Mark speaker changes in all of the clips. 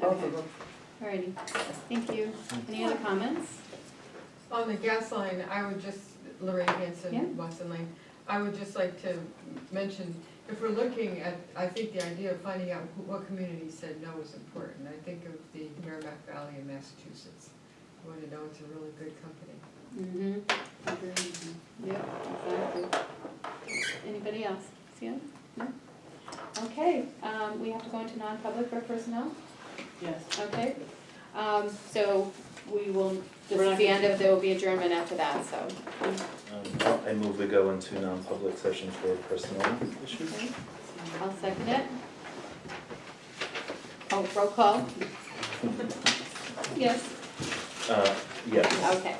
Speaker 1: both of them.
Speaker 2: Alrighty, thank you. Any other comments?
Speaker 3: On the gas line, I would just, Lorraine
Speaker 2: Yeah.
Speaker 3: Hanson, Watson Lane, I would just like to mention, if we're looking at, I think the idea of finding out who- what community said no is important. I think of the Merrimack Valley in Massachusetts. You wanna know it's a really good company.
Speaker 2: Mm-hmm. Yep, exactly. Anybody else? See it? No? Okay, um, we have to go into non-public for personnel,
Speaker 1: Yes.
Speaker 2: okay? Um, so we will, this
Speaker 1: We're
Speaker 2: is
Speaker 1: not
Speaker 2: the
Speaker 1: gonna-
Speaker 2: end of, there will be adjournment after that, so.
Speaker 4: Um, I move we go into non-public session for personnel issues.
Speaker 2: okay. I'll second it. Oh, roll call? Yes.
Speaker 4: Uh, yes.
Speaker 2: Okay,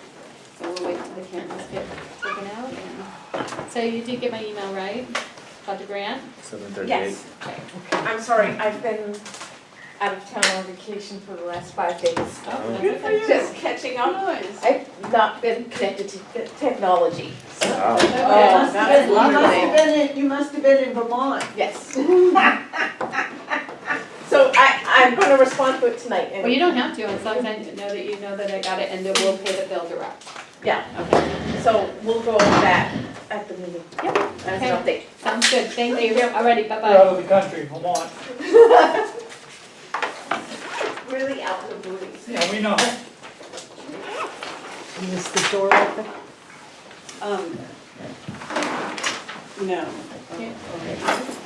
Speaker 2: so we'll wait till the cameras get taken out and, so you did get my email, right? About the grant?
Speaker 4: Seven thirty-eight.
Speaker 5: Yes,
Speaker 2: Okay.
Speaker 5: I'm sorry, I've been out of town on vacation for the last five days.
Speaker 2: Oh, that's
Speaker 4: Good
Speaker 2: okay.
Speaker 5: Just catching up. I've not been connected to te- technology.
Speaker 2: Oh,
Speaker 4: Wow.
Speaker 2: Okay.
Speaker 5: that's
Speaker 1: Oh, You must
Speaker 5: wonderful.
Speaker 1: have been in, you must have been in Vermont.
Speaker 5: Yes. So I, I'm gonna respond to it tonight
Speaker 2: Well, you don't
Speaker 5: and,
Speaker 2: have to, as long as I know that you know that I got it and that we'll pay the bill direct.
Speaker 5: yeah,
Speaker 2: Okay,
Speaker 5: so we'll go over that at the meeting.
Speaker 2: Yep,
Speaker 5: As an update.
Speaker 2: sounds good, thank you, alrighty,
Speaker 6: We're out
Speaker 2: bye-bye.
Speaker 6: of the country, Vermont.
Speaker 5: Really out of the blue.
Speaker 6: Yeah, we know.
Speaker 1: Is the door open?
Speaker 7: Um, no.
Speaker 2: Yeah.
Speaker 7: Okay.